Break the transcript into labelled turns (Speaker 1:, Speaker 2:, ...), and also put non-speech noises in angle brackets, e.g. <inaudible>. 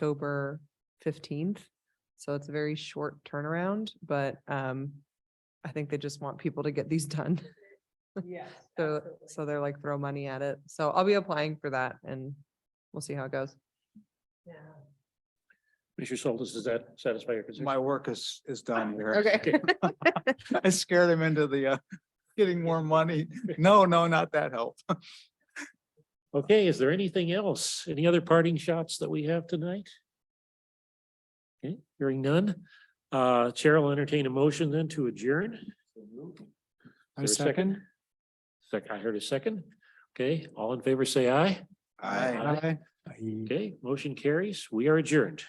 Speaker 1: October fifteenth. So it's a very short turnaround, but um, I think they just want people to get these <laughs> done.
Speaker 2: Yes.
Speaker 1: So,
Speaker 2: absolutely.
Speaker 1: so they're like throw money at it. So I'll be applying for that and we'll see how it goes.
Speaker 2: Yeah.
Speaker 3: Mr. Soltis, does that satisfy your position?
Speaker 4: My work is, is done here.
Speaker 1: Okay.
Speaker 4: I scared him into the, uh, getting more money. No, no, not that help.
Speaker 3: Okay, is there anything else? Any other parting shots that we have tonight? Okay, hearing none. Uh, Chair will entertain a motion then to adjourn. Is there A second? Second, I heard a second. Okay, all in favor, say aye.
Speaker 4: Aye. Mm.
Speaker 3: Okay, motion carries. We are adjourned.